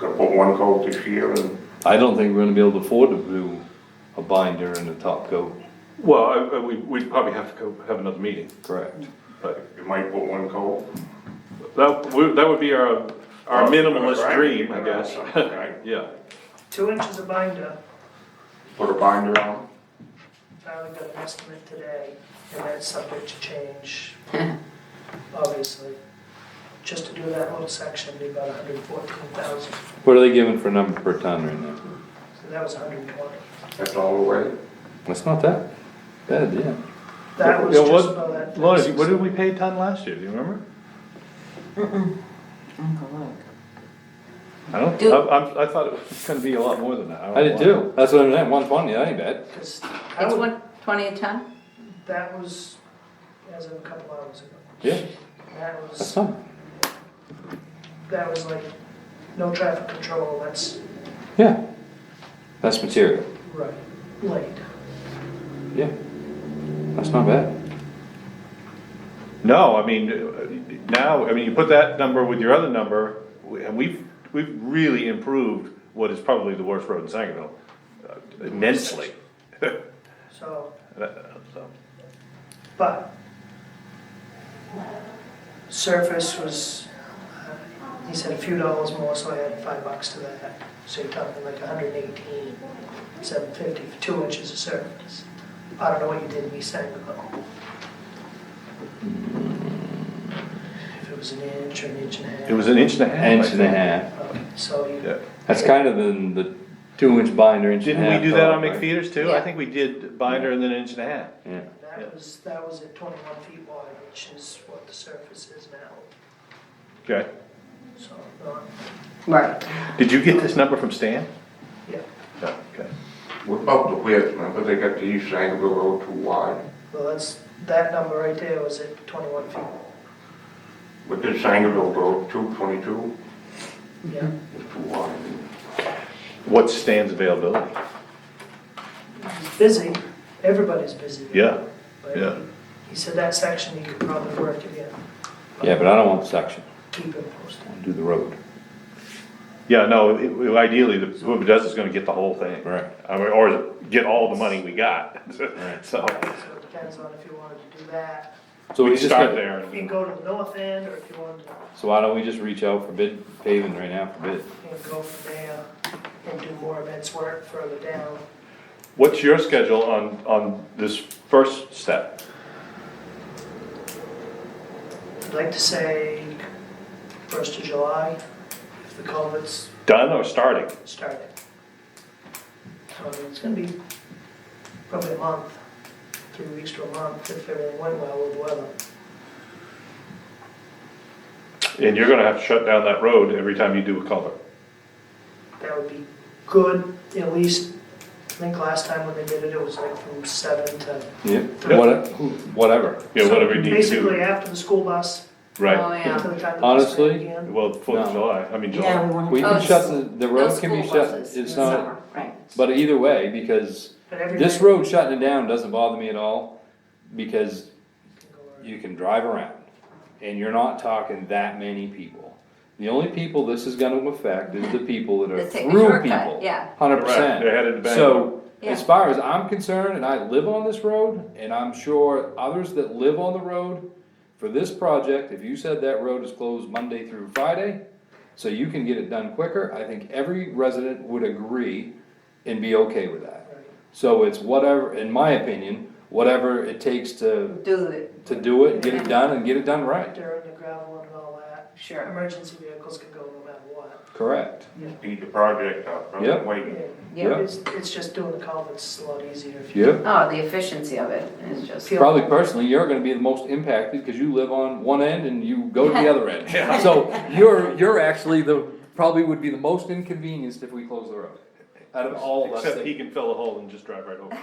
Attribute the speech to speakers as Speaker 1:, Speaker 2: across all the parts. Speaker 1: with one coat this year and
Speaker 2: I don't think we're gonna be able to afford to do a binder and a top coat.
Speaker 3: Well, I- I- we, we'd probably have to go have another meeting,
Speaker 2: Correct.
Speaker 3: but
Speaker 1: you might put one coat.
Speaker 3: that, would- that would be our, our minimalist
Speaker 1: Right,
Speaker 3: dream, I
Speaker 1: right,
Speaker 3: guess.
Speaker 1: right.
Speaker 3: Yeah,
Speaker 4: Two inches of binder,
Speaker 1: Put a binder on.
Speaker 4: Tyler got an estimate today, and that's subject to change, obviously. Just to do that little section, it'd be about hundred and fourteen thousand,
Speaker 2: What are they giving for number per ton right now?
Speaker 4: so that was hundred and twenty.
Speaker 1: That's all the way.
Speaker 2: That's not that bad, yeah.
Speaker 4: That was
Speaker 3: Yeah,
Speaker 4: just
Speaker 3: what-
Speaker 4: about that.
Speaker 3: Lorna, do you- what did we pay a ton last year, do you remember? I don't,
Speaker 5: Do-
Speaker 3: I, I'm- I thought it was gonna be a lot more than that. don't
Speaker 2: I did
Speaker 3: know why.
Speaker 2: too. That's what I'm saying, one twenty, that ain't bad.
Speaker 4: 'Cause
Speaker 5: It's
Speaker 4: that was,
Speaker 5: one twenty a ton?
Speaker 4: that was, as of a couple hours ago,
Speaker 2: Yeah,
Speaker 4: that
Speaker 2: that's
Speaker 4: was,
Speaker 2: not,
Speaker 4: that was like, no traffic control, that's
Speaker 2: yeah. That's material,
Speaker 4: right, late.
Speaker 2: yeah. That's not bad.
Speaker 3: No, I mean, uh, now, I mean, you put that number with your other number, we- and we've, we've really improved what is probably the worst road in Sangerville uh, immensely.
Speaker 4: So,
Speaker 3: So,
Speaker 4: But surface was, uh, he said a few dollars more, so I had five bucks to that. So you're talking like a hundred and eighteen, seven fifty for two inches of surface. I don't know what you did in East Sangerville. If it was an inch or an inch and a half.
Speaker 3: It was an inch and a half. I
Speaker 2: Inch and a
Speaker 3: think.
Speaker 2: half.
Speaker 4: Okay, So you,
Speaker 3: Yeah.
Speaker 2: That's kind of in the two inch binder, inch and a
Speaker 3: Didn't we
Speaker 2: half
Speaker 3: do that
Speaker 2: top,
Speaker 3: on
Speaker 2: right?
Speaker 3: McFeeters too? I think we did binder and then inch and a half.
Speaker 2: Yeah,
Speaker 4: that was, that was at twenty-one feet wide, which is what the surface is now,
Speaker 3: Okay.
Speaker 4: so, uh,
Speaker 5: Right.
Speaker 3: Did you get this number from Stan?
Speaker 4: yeah.
Speaker 3: No, okay.
Speaker 1: What about the width, remember they got the East Sangerville Road too wide?
Speaker 4: Well, that's, that number right there was at twenty-one feet,
Speaker 1: But this Sangerville Road, two twenty-two,
Speaker 4: yeah.
Speaker 1: is too wide.
Speaker 3: What's Stan's availability?
Speaker 4: Busy, everybody's busy.
Speaker 3: Yeah,
Speaker 4: But
Speaker 3: yeah.
Speaker 4: He said that section he could probably work again,
Speaker 2: yeah, but I don't want the section,
Speaker 4: keep it posted.
Speaker 2: I wanna do the road.
Speaker 3: Yeah, no, it- it- ideally, the- whoever does is gonna get the whole thing.
Speaker 2: Right.
Speaker 3: I mean, Or get all the money we got, so.
Speaker 4: So it depends on if you wanted to do that,
Speaker 2: So
Speaker 3: We
Speaker 2: we just
Speaker 3: start
Speaker 2: gotta-
Speaker 3: there.
Speaker 4: if you go to the north end, or if you wanted to
Speaker 2: So why don't we just reach out for bid paving right now for bid?
Speaker 4: you know, go from there and do more events work further down.
Speaker 3: What's your schedule on, on this first step?
Speaker 4: I'd like to say first of July, if the culvert's
Speaker 3: Done or starting?
Speaker 4: started. Um, it's gonna be probably a month, three weeks to a month, if everything went well with the weather.
Speaker 3: And you're gonna have to shut down that road every time you do a culvert.
Speaker 4: That would be good, at least, I think last time when they did it, it was like from seven to.
Speaker 2: Yeah,
Speaker 4: Yeah.
Speaker 2: what- who- whatever.
Speaker 3: Yeah, whatever you
Speaker 4: So
Speaker 3: need to
Speaker 4: Basically um,
Speaker 3: do.
Speaker 4: after the school bus,
Speaker 5: Oh,
Speaker 3: Right.
Speaker 4: until
Speaker 5: yeah.
Speaker 4: the time the bus
Speaker 2: Honestly,
Speaker 4: ran again.
Speaker 3: Well, Fourth of
Speaker 2: No.
Speaker 3: July, I mean,
Speaker 6: Yeah,
Speaker 3: July.
Speaker 6: we want
Speaker 2: We
Speaker 6: to.
Speaker 5: Oh,
Speaker 2: can
Speaker 5: it's-
Speaker 2: shut, the, the
Speaker 5: No
Speaker 2: road can
Speaker 5: school
Speaker 2: be shut,
Speaker 5: buses in
Speaker 2: it's
Speaker 5: the
Speaker 2: not,
Speaker 5: summer, right.
Speaker 2: but either way, because
Speaker 4: But every
Speaker 2: this
Speaker 4: day-
Speaker 2: road shutting it down doesn't bother me at all, because you can drive around, and you're not talking that many people. The only people this is gonna affect is the people that are
Speaker 5: That take the
Speaker 2: through
Speaker 5: shortcut,
Speaker 2: people.
Speaker 5: yeah.
Speaker 2: Hundred
Speaker 3: Correct,
Speaker 2: percent.
Speaker 3: they're headed to Bangor.
Speaker 2: So,
Speaker 5: Yeah.
Speaker 2: as far as I'm concerned, and I live on this road, and I'm sure others that live on the road, for this project, if you said that road is closed Monday through Friday, so you can get it done quicker, I think every resident would agree and be okay with that.
Speaker 4: Right.
Speaker 2: So it's whatever, in my opinion, whatever it takes to,
Speaker 5: Do it,
Speaker 2: to do it, and get it done, and get it done right.
Speaker 4: During the gravel and all that,
Speaker 5: sure,
Speaker 4: emergency vehicles can go no matter what.
Speaker 2: Correct.
Speaker 1: Speed the project up, I'm
Speaker 2: Yep.
Speaker 1: waiting.
Speaker 5: yeah.
Speaker 4: It's, it's just doing the culverts a lot easier if you.
Speaker 2: Yep.
Speaker 5: Oh, the efficiency of it is just,
Speaker 4: Feel-
Speaker 2: Probably personally, you're gonna be the most impacted, cause you live on one end and you go to the other end.
Speaker 3: Yeah.
Speaker 2: So you're, you're actually the, probably would be the most inconvenienced if we close the road, out of all of us.
Speaker 3: Except he
Speaker 2: that-
Speaker 3: can fill a hole and just drive right over.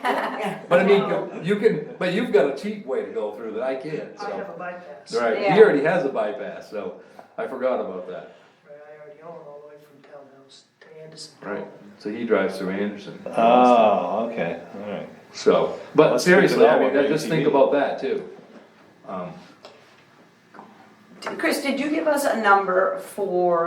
Speaker 2: But I mean, you can, but you've got a cheap way to go through that I can't,
Speaker 4: I have
Speaker 2: so.
Speaker 4: a bypass.
Speaker 2: Right,
Speaker 5: Yeah.
Speaker 2: he already has a bypass, so I forgot about that.
Speaker 4: Right, I already own all the way from townhouse to Anderson.
Speaker 2: Right. Uh, So he drives through Anderson.
Speaker 3: Oh, okay, alright.
Speaker 2: So, but
Speaker 3: Let's stick to
Speaker 2: seriously, I
Speaker 3: that
Speaker 2: mean,
Speaker 3: one,
Speaker 2: just think
Speaker 3: ATV.
Speaker 2: about that too. Um,
Speaker 5: Chris, did you give us a number for